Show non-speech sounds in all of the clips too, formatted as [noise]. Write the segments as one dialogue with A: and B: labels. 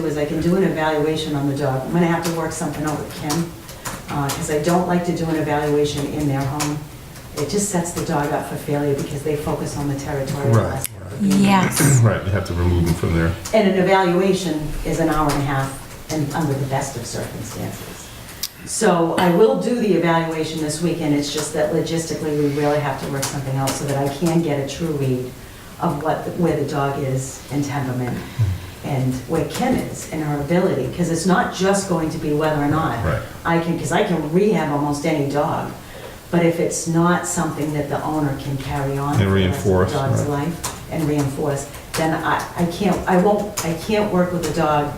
A: do is I can do an evaluation on the dog. I'm gonna have to work something out with Kim, because I don't like to do an evaluation in their home. It just sets the dog up for failure because they focus on the territorial
B: Right,
A: aspect. of being there.
C: Yes.
B: [coughs] Right, you have to remove them from there.
A: And an evaluation is an hour and a half and under the best of circumstances. So I will do the evaluation this weekend, it's just that logistically, we really have to work something out so that I can get a true read of what, where the dog is in temperament and where Kim is in her ability, because it's not just going to be whether or not
B: Right.
A: I can, because I can rehab almost any dog, but if it's not something that the owner can carry on for the rest
B: And
A: of the
B: reinforce,
A: dog's
B: right.
A: life and reinforce, then I, I can't, I won't, I can't work with a dog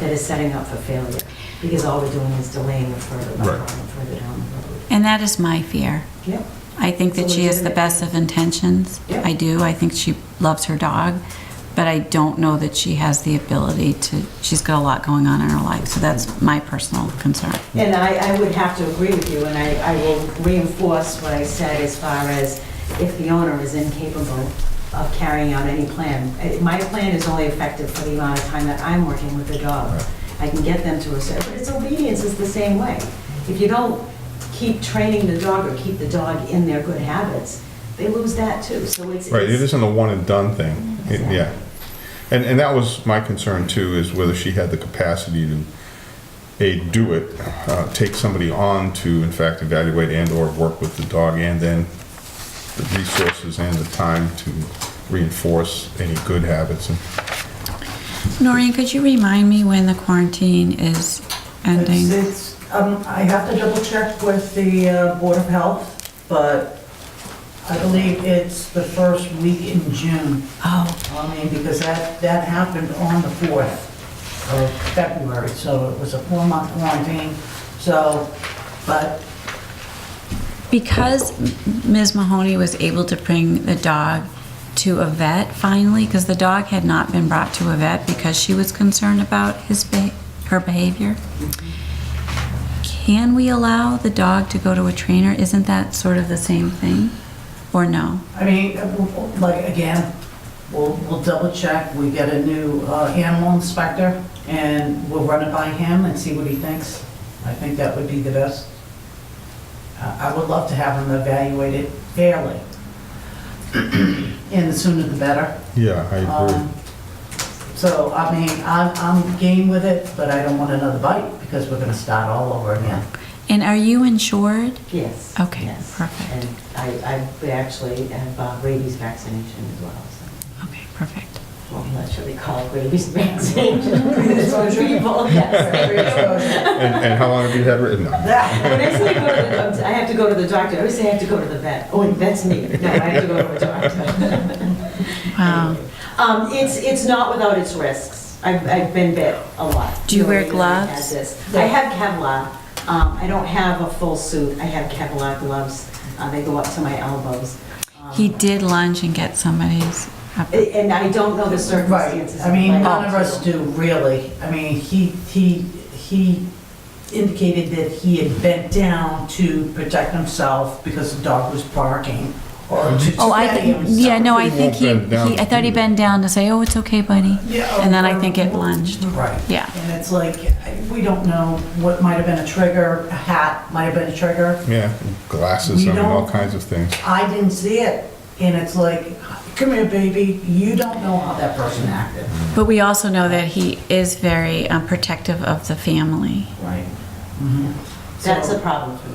A: that is setting up for failure, because all we're doing is delaying it further, the
B: Right.
A: problem further down the road.
C: And that is my fear.
A: Yep,
C: I think that she has the best of intentions.
A: Yeah.
C: I do. I think she loves her dog, but I don't know that she has the ability to. She's got a lot going on in her life, so that's my personal concern.
A: and I, I would have to agree with you, and I, I will reinforce what I said as far as if the owner is incapable of carrying out any plan. Uh, My plan is only effective for the amount of time that I'm working with the dog.
B: Right.
A: I can get them to a certain, but it's obedience is the same way. If you don't keep training the dog or keep the dog in their good habits, they lose that too, so it's.
B: Right, it
A: it's-
B: isn't a one and done thing, It- yeah. And, and that was my concern too, is whether she had the capacity to, A, do it, uh, take somebody on to in fact evaluate and or work with the dog and then the resources and the time to reinforce any good habits. And
C: Noreen, could you remind me when the quarantine is
D: It's-
C: ending?
D: It's, um, I have to double check with the uh, Board of Health, but I believe it's the first week in June.
C: Oh,
D: I mean, because that, that happened on the 4th of February, so it was a four-month quarantine. So, but
C: because Ms. Mahoney was able to bring the dog to a vet finally, because the dog had not been brought to a vet because she was concerned about his be- her behavior. Can we allow the dog to go to a trainer? Isn't that sort of the same thing, or no?
D: I mean, like, again, we'll, we'll double check, we get a new uh, animal inspector, and we'll run it by him and see what he thinks. I think that would be the best. I I would love to have him evaluated fairly, and the sooner the better.
B: Yeah, I agree.
D: Um, So, I mean, I'm, I'm game with it, but I don't want another bite, because we're gonna start all over again.
C: And are you insured?
A: Yes.
C: Okay,
A: yes.
C: perfect.
A: And I, I we actually have uh, rabies vaccination as well, so,
C: Okay, perfect.
A: well, I'm not sure we call it rabies [laughs] vaccination.
D: [laughs]
A: People, yes.
B: And, and how long have you had written? No.
A: When I say go to the doctor, I have to go to the doctor, I always say I have to go to the vet. Oh, wait, vet's me. No, I have to go to the doctor.
C: [laughs] Wow.
A: Um, it's, it's not without its risks. I've, I've been bit a lot.
C: Do you wear
A: Really, really had
C: gloves?
A: this. I have Kevlar. Um, I don't have a full suit. I have Kevlar gloves. Uh, they go up to my elbows. Um,
C: He did lunge and get somebody's.
A: And I don't know the circumstances.
D: Right, I mean,
A: of my
D: none of us
A: health.
D: do, really. I mean, he, he, he indicated that he had bent down to protect himself because the dog was barking, or to defend
C: Oh, I
D: himself.
C: think, yeah, no, I
B: He
C: think
B: won't
C: he,
B: bend down.
C: he, I thought he bent down to say, oh, it's okay, buddy.
D: Yeah,
C: And then I
D: or-
C: think it lunged.
D: Right.
C: Yeah.
D: And it's like, we don't know what might have been a trigger, a hat might have been a trigger.
B: Yeah, glasses, I
D: We
B: mean, all
D: don't-
B: kinds of things.
D: I didn't see it, and it's like, come here, baby, you don't know how that person acted.
C: But we also know that he is very um, protective of the family.
D: Right.
A: That's
D: So-
A: a problem for me.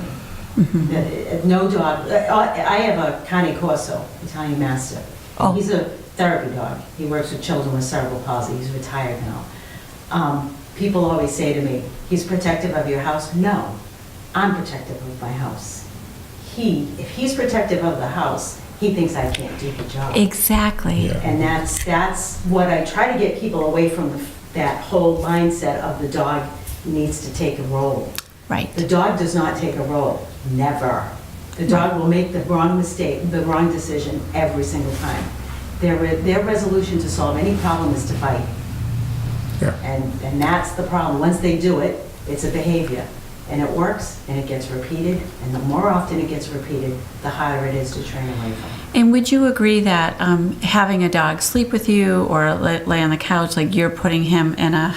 A: Uh, uh, No dog, uh, I I have a Cane Corso, Italian Mastiff.
C: Oh.
A: He's a therapy dog. He works with children with cerebral palsy. He's retired now. Um, People always say to me, he's protective of your house. No, I'm protective of my house. He, if he's protective of the house, he thinks I can't do the job.
C: Exactly.
B: Yeah.
A: And that's, that's what I try to get people away from, the- that whole mindset of the dog needs to take a role.
C: Right.
A: The dog does not take a role, never. The dog will make the wrong mistake, the wrong decision every single time. Their, re- their resolution to solve any problem is to fight.
B: Yeah.
A: And, and that's the problem. Once they do it, it's a behavior. And it works, and it gets repeated, and the more often it gets repeated, the harder it is to train away from.
C: And would you agree that um, having a dog sleep with you or la- lay on the couch, like you're putting him in a